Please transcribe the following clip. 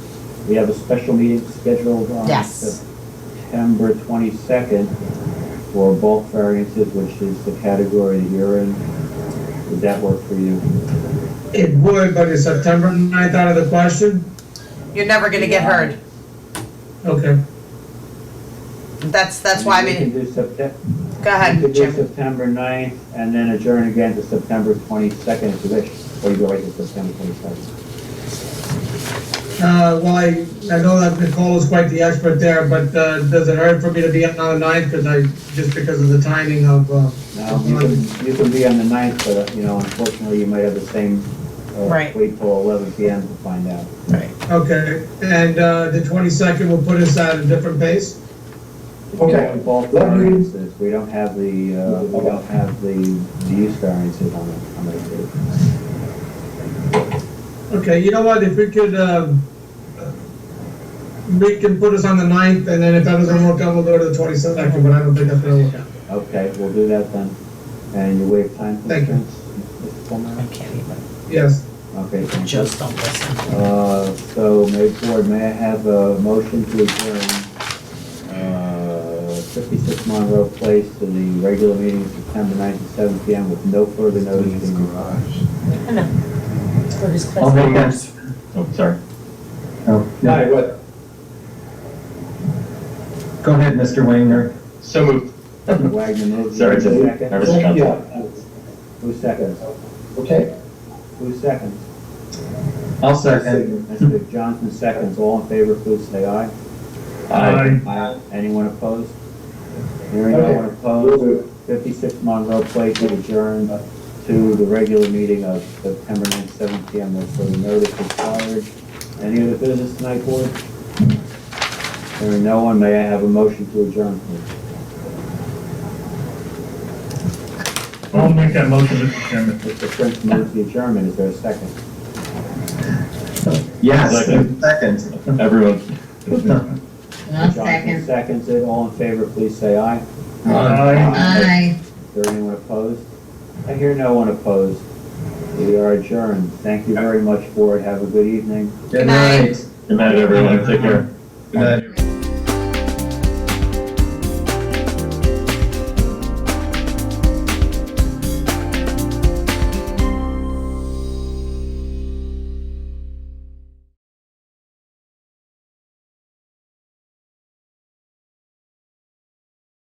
We have a special meeting scheduled on Yes. September 22nd for bulk variances, which is the category that you're in. Would that work for you? It would, but is September 9th out of the question? You're never gonna get heard. Okay. That's, that's why I We can mean, do September, go we can ahead, do Jim. September 9th and then adjourn again to September 22nd if you wish, or you go right to September 22nd. Uh, well, I, I know that Nicole is quite the expert there, but, uh, does it hurt for me to be on the 9th? Cause I, just because of the timing of, uh, Now, you can, you can be on the 9th, but, uh, you know, unfortunately, you might have the same, uh, Right. wait till 11 PM to find out. okay. And, uh, the 22nd will put us at a different pace? Yeah, Okay, bulk Let me- variances, we don't have the, uh, we don't have the the use variances on the, on the, Okay, you know what, if we could, um, we can put us on the 9th and then if that doesn't work out, we'll go to the 22nd, but I don't think that's gonna work out. okay, we'll do that then. And you waive time Thank you. constraints? Mr. Fulmer? can't even, Yes, Okay, thank you. just don't listen. Uh, so, may, board, may I have a motion to adjourn, uh, fifty-six Monroe Place to the regular meeting September ninth at seven P M with no further notice. being required. For his class. I'll make that. Oh, sorry. Oh, Aye, no, what? go ahead, Mr. Wagner. So moved. Wagner moves. Sorry, Who's just second? nervous about that. Who's second? Okay. Who's second? I'll second. Mr. Johnson seconds, all in favor, please say aye. Aye. Aye. Anyone opposed? Hearing no Okay. one opposed, fifty-six Monroe Place is adjourned to the regular meeting of September ninth, seven P M, with further notice required. Any other business tonight, board? Hearing no one, may I have a motion to adjourn, please? I'll make that motion, Mr. Chairman. Mr. Prince moves the adjournment, is there a second? Yes, Second. second. Everyone. Johnson seconds it, all in favor, please say aye. Aye. Aye. Is there anyone opposed? I hear no one opposed. We are adjourned. Thank you very much, board. Have a good evening. Good night. Good night, everyone. Take care. Good night.